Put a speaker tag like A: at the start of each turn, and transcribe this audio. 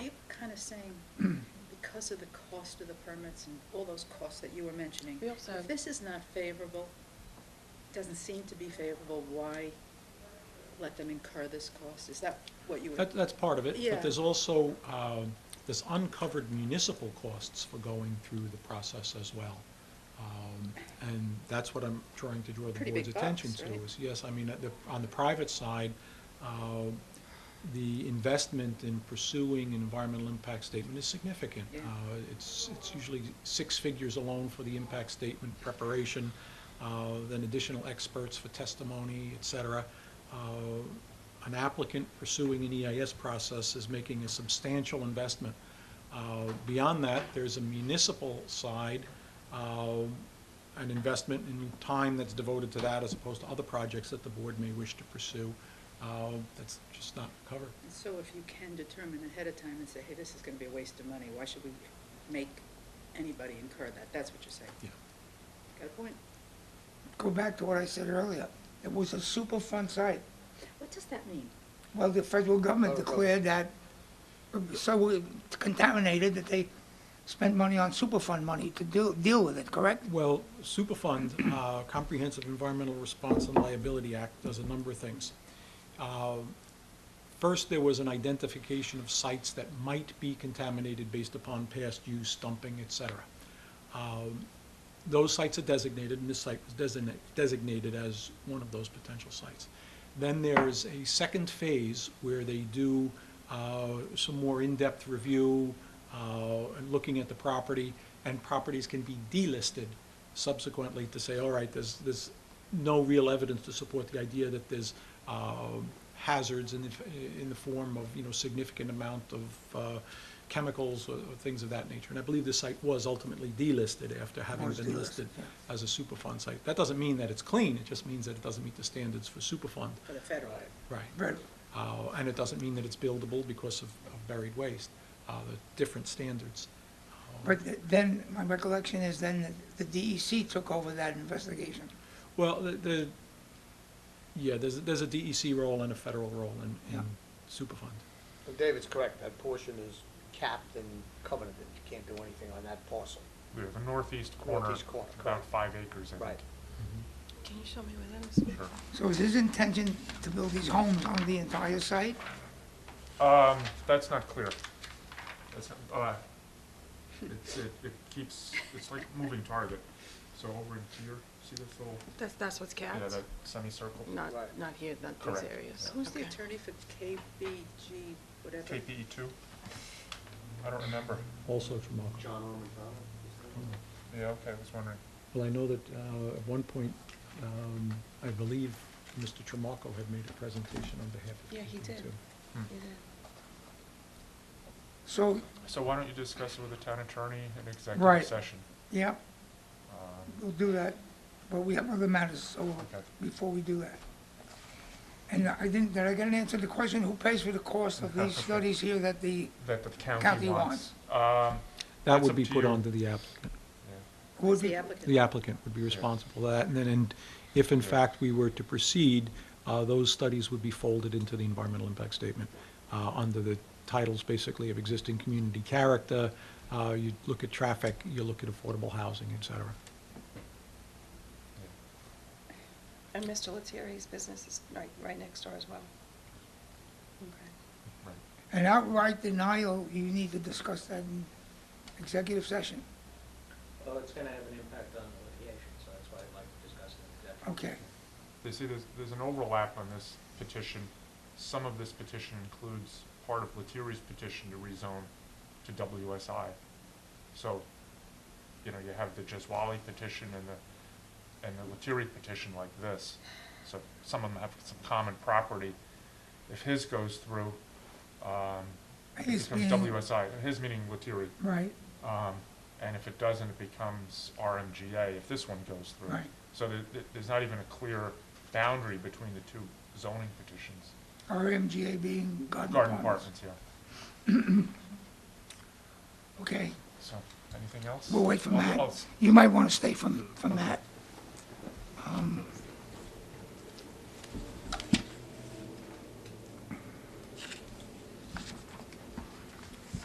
A: kind of saying, because of the cost of the permits and all those costs that you were mentioning,
B: We also
A: if
B: have-
A: this is not favorable, doesn't seem to be favorable, why let them incur this cost? Is that what you were?
C: That, that's part of it,
A: Yeah.
C: but there's also, um, there's uncovered municipal costs for going through the process as well. Um, And that's what I'm trying to draw the
A: Pretty
C: board's
A: big
C: attention
A: bucks,
C: to,
A: right?
C: is, yes, I mean, at the- on the private side, uh, the investment in pursuing an environmental impact statement is significant.
A: Yeah.
C: Uh, It's, it's usually six figures alone for the impact statement preparation, uh, then additional experts for testimony, et cetera. Uh, An applicant pursuing an EIS process is making a substantial investment. Uh, Beyond that, there's a municipal side, uh, an investment in time that's devoted to that as opposed to other projects that the board may wish to pursue. Uh, That's just not covered.
A: And So if you can determine ahead of time and say, hey, this is going to be a waste of money, why should we make anybody incur that? That's what you're saying.
C: Yeah.
A: Got a point?
D: Go back to what I said earlier. It was a superfund site.
A: What does that mean?
D: Well, the federal government
E: Federal
D: declared that it was so contaminated that they spent money on superfund money to deal, deal with it, correct?
C: Well, Superfund, uh, Comprehensive Environmental Response and Liability Act, does a number of things. Uh, First, there was an identification of sites that might be contaminated based upon past use, dumping, et cetera. Um, Those sites are designated, and this site was designate- designated as one of those potential sites. Then there's a second phase where they do uh, some more in-depth review uh, and looking at the property, and properties can be delisted subsequently to say, all right, there's, there's no real evidence to support the idea that there's um, hazards in the, f- in the form of, you know, significant amount of uh, chemicals or or things of that nature. And I believe this site was ultimately delisted after having
D: Was
C: been
D: delisted,
C: listed as a Superfund site. That doesn't mean that it's clean, it just means that it doesn't meet the standards for Superfund.
A: For the federal.
C: Right.
D: Right.
C: Uh, And it doesn't mean that it's buildable because of of buried waste, uh, the different standards. Um,
D: But th- then, my recollection is then the the DEC took over that investigation.
C: Well, the- the, yeah, there's, there's a DEC role and a federal role in, in
D: Yeah.
C: Superfund.
E: Well, David's correct, that portion is capped and covenanted, you can't do anything on that parcel.
F: We have a northeast corner,
E: Northeast corner,
F: about
E: correct.
F: five acres in it.
E: Right.
B: Can you show me where that is?
F: Sure.
D: So is his intention to build these homes on the entire site?
F: Um, that's not clear. That's, not- uh, it's, it, it keeps, it's like moving target. So over in here, see this little,
B: That's, that's what's
F: yeah,
B: capped?
F: that semicircle?
B: Not,
E: Right.
B: not here, not these
F: Correct.
B: areas.
A: Who's the
B: Okay.
A: attorney for KBG, whatever?
F: KPE E two? I don't remember.
C: Also from Oxford.
E: John Orman Fowler?
F: Yeah, okay, I was wondering.
C: Well, I know that uh, at one point, um, I believe Mr. Tramaco had made a presentation on behalf of.
B: Yeah, he
C: KP
B: did.
C: too.
D: So,
F: So why don't you discuss it with the town attorney in
D: Right.
F: executive session?
D: yeah,
F: Um,
D: we'll do that, but we have other matters over
F: Okay.
D: before we do that. And I didn't, did I get an answer to the question, who pays for the cost of these studies here that the,
F: That the
D: County
F: county wants. Um,
C: That
F: That's
C: would
F: up
C: be
F: to
C: put
F: you.
C: onto the applicant.
F: yeah.
D: would
A: The
D: be,
A: applicant.
C: The applicant would be responsible for that, and then, and if in fact we were to proceed, uh, those studies would be folded into the environmental impact statement, uh, under the titles basically of existing community character, uh, you look at traffic, you look at affordable housing, et cetera.
B: And Mr. Lettieri's business is right, right next door as well. Okay.
F: Right.
D: an outright denial, you need to discuss that in executive session.
G: Well, it's gonna have an impact on the litigation, so that's why I'd like to discuss it in executive.
D: Okay,
F: They see there's, there's an overlap on this petition. Some of this petition includes part of Lettieri's petition to rezone to WSI. So, you know, you have the Jeswali petition and the, and the Lettieri petition like this. So some of them have some common property. If his goes through, um, it
D: His
F: becomes
D: being-
F: WSI, his meaning Lettieri.
D: right,
F: Um, and if it doesn't, it becomes RMGA if this one goes through.
D: Right.
F: So there, there- there's not even a clear boundary between the two zoning petitions.
D: RMGA being garden
F: Garden
D: apartments.
F: apartments, yeah.
D: Okay,
F: So, anything else?
D: we'll wait for
F: I'll- I'll
D: Matt.
F: s- Oh,
D: You might want to stay from, from that.